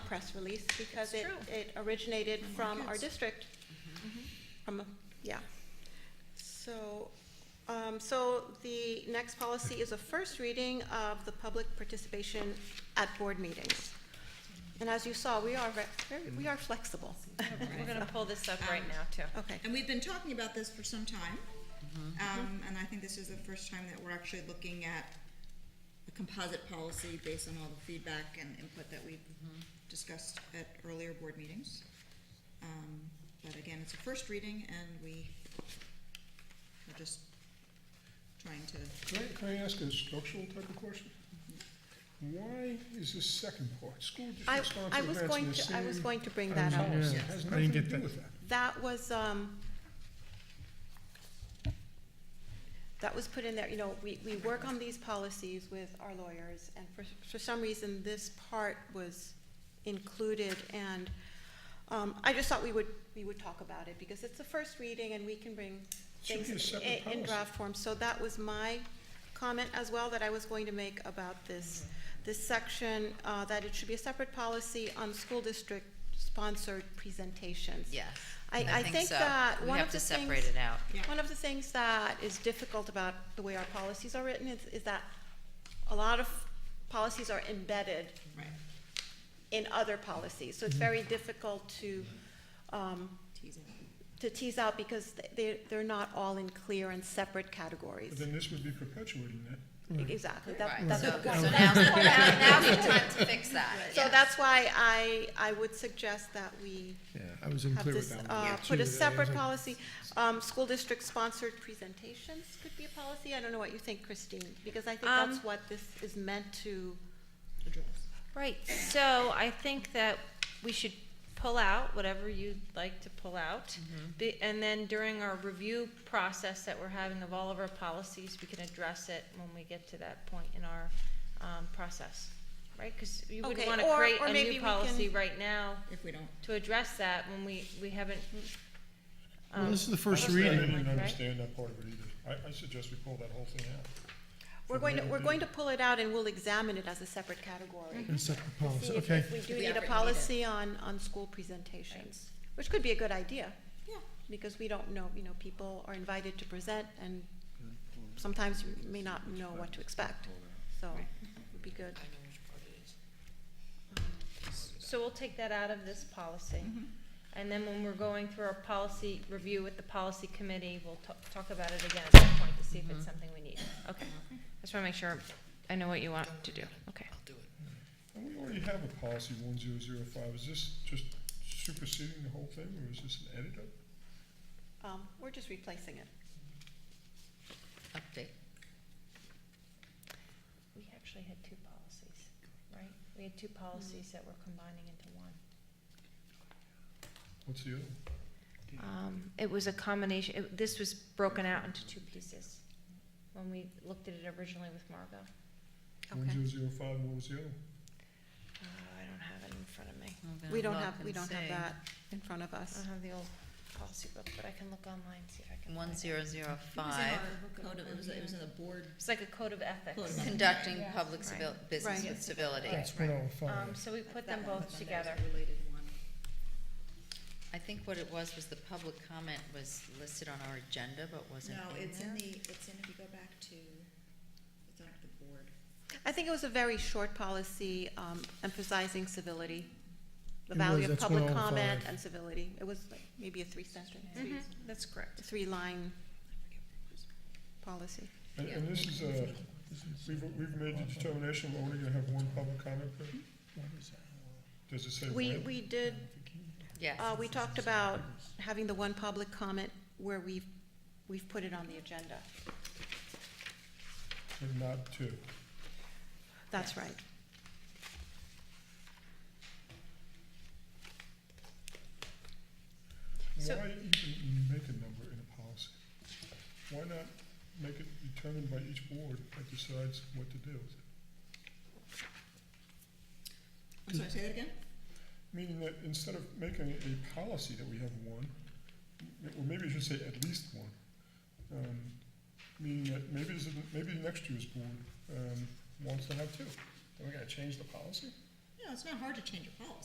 press release because it, It's true. it originated from our Yes. district. From, yeah. So, um, so the next policy is a first reading of the public participation at board meetings. And as you saw, we are ve- very, we are flexible. We're gonna pull this up right now too. Okay, And we've been talking about this for some time. Um, and I think this is the first time that we're actually looking at a composite policy based on all the feedback and input that we've discussed at earlier board meetings. Um, but again, it's a first reading and we are just trying to, Can I, can I ask a structural type of question? Why is this second part, school I, district I sponsored was events in going the to, I was same going to bring that up. policy? It has Yeah, I nothing didn't to get do that. with that. That was, um, that was put in there, you know, we, we work on these policies with our lawyers, and for, for some reason, this part was included, and, um, I just thought we would, we would talk about it, because it's the first reading, and we can bring Should things be a i- separate in, policy. draft form, so that was my comment as well, that I was going to make about this, this section, uh, that it should be a separate policy on school district sponsored presentations. Yes. I- I think so. that one of the We have to things- separate it out. yeah. One of the things that is difficult about the way our policies are written is, is that a lot of policies are embedded Right. in other policies. So it's very difficult to, um, Tease it. to tease out because they, they're not all in clear and separate But categories. then this would be perpetuating that. Exactly, that, Right, that's so, the so point. now's, now- now's the time to fix that. So that's why I, I would suggest that we Yeah, I was have unclear with this, that one. uh, too, put a that I separate was like- policy. Um, school district sponsored presentations could be a policy. I don't know what you think, Christine, because I think that's Um, what this is meant to. Address. Right, so I think that we should pull out whatever you'd like to pull out. Mm-hmm. Be- And then during our review process that we're having of all of our policies, we can address it when we get to that point in our um, process, right? Because you Okay, wouldn't want to or- create or a maybe we new can- policy right now If we don't, to address that when we, we haven't. Mm. Well, um, this is the first Honestly, I reading. didn't Right? understand that part of it either. I, I suggest we pull that whole thing out. We're going to, we're going to pull it out and we'll examine it as a separate category. And separate See policy, if- okay. If we do We need have a it needed. policy on, on school presentations, which could be a good idea, yeah. because we don't know, you know, people are invited to present and sometimes you may not know what to expect, so it would be good. So we'll take that out of this policy. Mm-hmm. And then when we're going through our policy review with the policy committee, we'll ta- talk about it again at that point to see if it's something we need. Mm-hmm. Okay. I just wanna make sure I know what you want to do. Okay. And we already have a policy one zero zero five. Is this just superseding the whole thing or is this an edit of? it? Um, we're just replacing it. Update. We actually had two policies, right? We had two policies that we're combining into one. What's the other one? Um, it was a combination, it, this was broken out into two pieces when we looked at it originally with Margot. One Okay. zero zero five, what was the other? one? Uh, I don't have it in front of me. We don't have, we don't have that in front of I us. don't have the old policy book, but I can look online, see if I can. One find it. zero It zero was in five, our code of- it was, it was in the board It's like a code of Code ethics. of ethics. conducting Yeah. public Right. civil, business Right. with civility. That's one oh five. Um, so we put That them one, both but then there's together. a Related one. I think what it was, was the public comment was listed on our agenda, but wasn't No, in it's in there. the, it's in, if you go back to, it's on the board. I think it was a very short policy um, emphasizing civility, the It was, value of that's public 105. comment and civility. It was like maybe a three sentence, Mm-hmm. Mhm, That's correct. three line policy. And, and this is a, we've, we've made the determination we're only gonna have one public comment period? Does it say when? We, we did, Yes. uh, we talked about having the one public comment where we've, we've put it on the agenda. But not two. That's right. So- Why even make a number in a policy? Why not make it determined by each board that decides what to do? with it? I'm sorry, say that again? Meaning that instead of making a policy that we have one, or maybe I should say at least one, um, meaning that maybe this, isn't- maybe the next year's board, um, wants to have two. Then we gotta change the policy? No, it's not hard to change a policy.